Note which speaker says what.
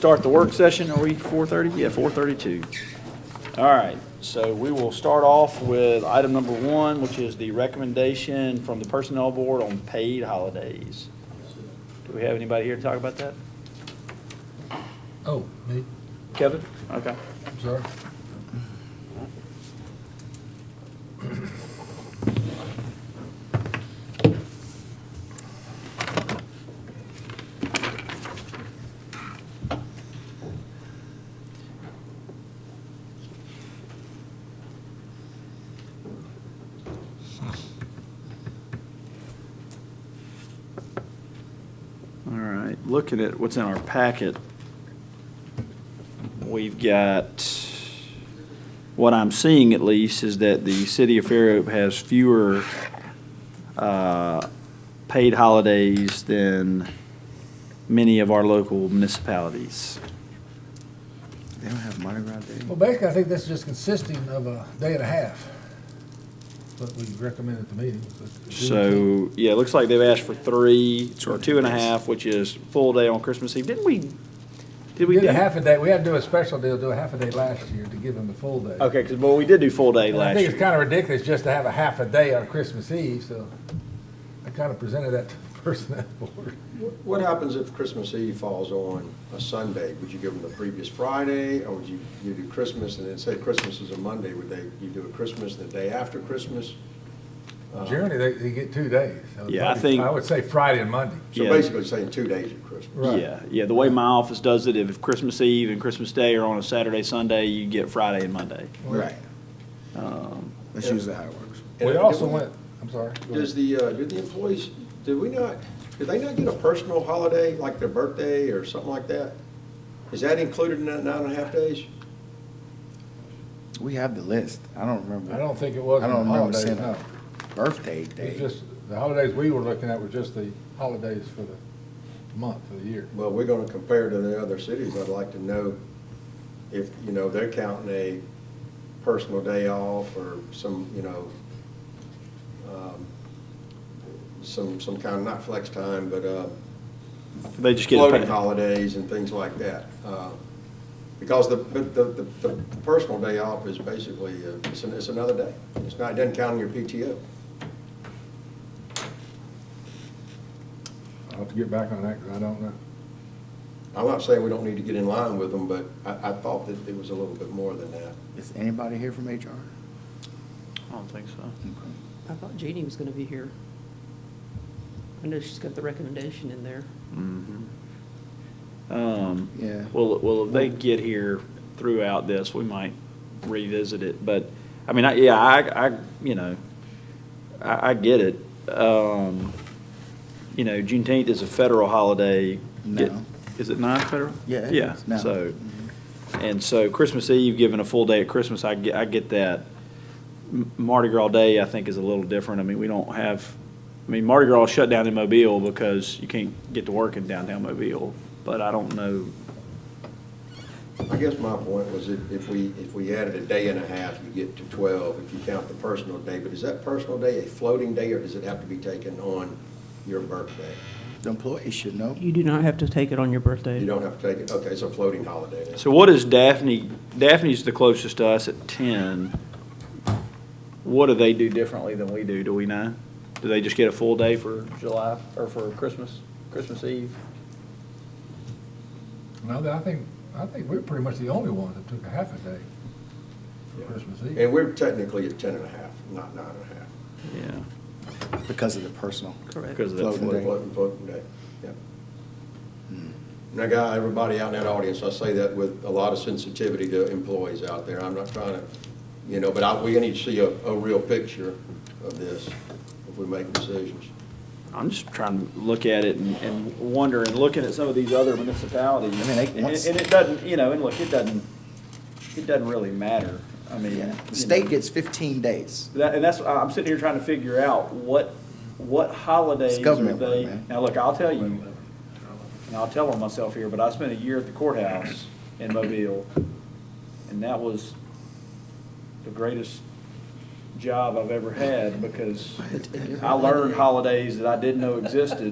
Speaker 1: Start the work session, are we 4:30? Yeah, 4:32. All right, so we will start off with item number one, which is the recommendation from the Personnel Board on paid holidays. Do we have anybody here to talk about that?
Speaker 2: Oh, me,
Speaker 1: Kevin? Okay.
Speaker 2: I'm sorry.
Speaker 1: All right, looking at what's in our packet, we've got, what I'm seeing at least, is that the city of Fairhope has fewer uh, paid holidays than many of our local municipalities. They don't have Mardi Gras Day?
Speaker 2: Well, basically, I think that's just consisting of a day and a half, what we recommend at the meeting. but-
Speaker 1: So, yeah, it looks like they've asked for three, or two and a half, which is full day on Christmas Eve. Didn't we, did we
Speaker 2: We
Speaker 1: do?
Speaker 2: did a half a day, we had to do a special deal, do a half a day last year to give them the full day.
Speaker 1: Okay, because, well, we did do full day
Speaker 2: And I
Speaker 1: last year.
Speaker 2: think it's kind of ridiculous just to have a half a day on Christmas Eve, so I kind of presented that to the person at the board.
Speaker 3: What- What happens if Christmas Eve falls on a Sunday? Would you give them the previous Friday, or would you, you do Christmas, and then say Christmas is a Monday, would they, you do a Christmas the day after Christmas? Uh,
Speaker 2: Generally, they, they get two days. so
Speaker 1: Yeah, I
Speaker 2: probably-
Speaker 1: think-
Speaker 2: I would say Friday and Monday.
Speaker 3: So
Speaker 1: Yeah.
Speaker 3: basically saying two days of Christmas.
Speaker 2: Right.
Speaker 1: Yeah, yeah, the way my office does it, if Christmas Eve and Christmas Day are on a Saturday, Sunday, you get Friday and Monday.
Speaker 4: Right,
Speaker 1: Um,
Speaker 4: that's usually how it works.
Speaker 2: We
Speaker 3: And
Speaker 2: also
Speaker 3: do we-
Speaker 2: went, I'm sorry. go ahead.
Speaker 3: Does the, uh, do the employees, did we not, did they not get a personal holiday, like their birthday or something like that? Is that included in that nine and a half days?
Speaker 4: We have the list, I don't remember.
Speaker 2: I don't think it was
Speaker 4: I
Speaker 2: on
Speaker 4: don't
Speaker 2: the
Speaker 4: remember
Speaker 2: holidays,
Speaker 4: seeing
Speaker 2: no.
Speaker 4: a birthday
Speaker 2: It's
Speaker 4: day.
Speaker 2: just, the holidays we were looking at were just the holidays for the month, for the year.
Speaker 3: Well, we're gonna compare to the other cities, I'd like to know if, you know, they're counting a personal day off or some, you know, um, some, some kind, not flex time, but, uh,
Speaker 1: They just get a
Speaker 3: floating
Speaker 1: pay.
Speaker 3: holidays and things like that. Uh, Because the, but the, the, the personal day off is basically, uh, it's, an- it's another day. It's not, it doesn't count on your PTO.
Speaker 2: I'll have to get back on that, because I don't know.
Speaker 3: I'm not saying we don't need to get in line with them, but I, I thought that it was a little bit more than that.
Speaker 4: Is anybody here from HR?
Speaker 1: I don't think so.
Speaker 5: I thought Jeannie was gonna be here. I know she's got the recommendation in there.
Speaker 1: Mhm. Um,
Speaker 4: Yeah.
Speaker 1: Well, well, if they get here throughout this, we might revisit it, but, I mean, I, yeah, I, I, you know, I, I get it. Um, you know, Juneteenth is a federal holiday. Get-
Speaker 4: No.
Speaker 1: Is it not federal?
Speaker 4: Yeah, it
Speaker 1: Yeah,
Speaker 4: is Mm-hmm. now.
Speaker 1: so, and so Christmas Eve, given a full day at Christmas, I get, I get that. M- Mardi Gras Day, I think, is a little different. I mean, we don't have, I mean, Mardi Gras shut down in Mobile because you can't get to work in downtown Mobile, but I don't know.
Speaker 3: I guess my point was if, if we, if we added a day and a half, you get to twelve, if you count the personal day. But is that personal day a floating day, or does it have to be taken on your birthday?
Speaker 4: The employees should know.
Speaker 5: You do not have to take it on your
Speaker 3: You
Speaker 5: birthday.
Speaker 3: don't have to take it, okay, it's a floating holiday then.
Speaker 1: So what is Daphne, Daphne's the closest to us at ten. What do they do differently than we do? Do we know? Do they just get a full day for July, or for Christmas, Christmas Eve?
Speaker 2: No, that I think, I think we're pretty much the only ones that took a half a day for Christmas Eve.
Speaker 3: And we're technically at ten and a half, not nine and a half.
Speaker 1: Yeah.
Speaker 4: Because of the personal.
Speaker 5: Correct.
Speaker 1: Because of that
Speaker 4: Floating
Speaker 1: float.
Speaker 4: day. Hmm.
Speaker 3: Floating, floating day, yeah. Now, guy, everybody out in that audience, I say that with a lot of sensitivity to employees out there. I'm not trying to, you know, but I, we need to see a, a real picture of this if we make decisions.
Speaker 1: I'm just trying to look at it and, and wonder, and looking at some of these other municipalities.
Speaker 4: I mean, they-
Speaker 1: And, and it doesn't, you know, and look, it doesn't, it doesn't really matter. I mean.
Speaker 4: Yeah,
Speaker 1: you know.
Speaker 4: the state gets fifteen days.
Speaker 1: That, and that's, I'm sitting here trying to figure out what, what holidays
Speaker 4: It's
Speaker 1: are
Speaker 4: government work,
Speaker 1: they?
Speaker 4: man.
Speaker 1: Now, look, I'll tell you, and I'll tell on myself here, but I spent a year at the courthouse in Mobile, and that was the greatest job I've ever had, because I learned holidays that I didn't know existed,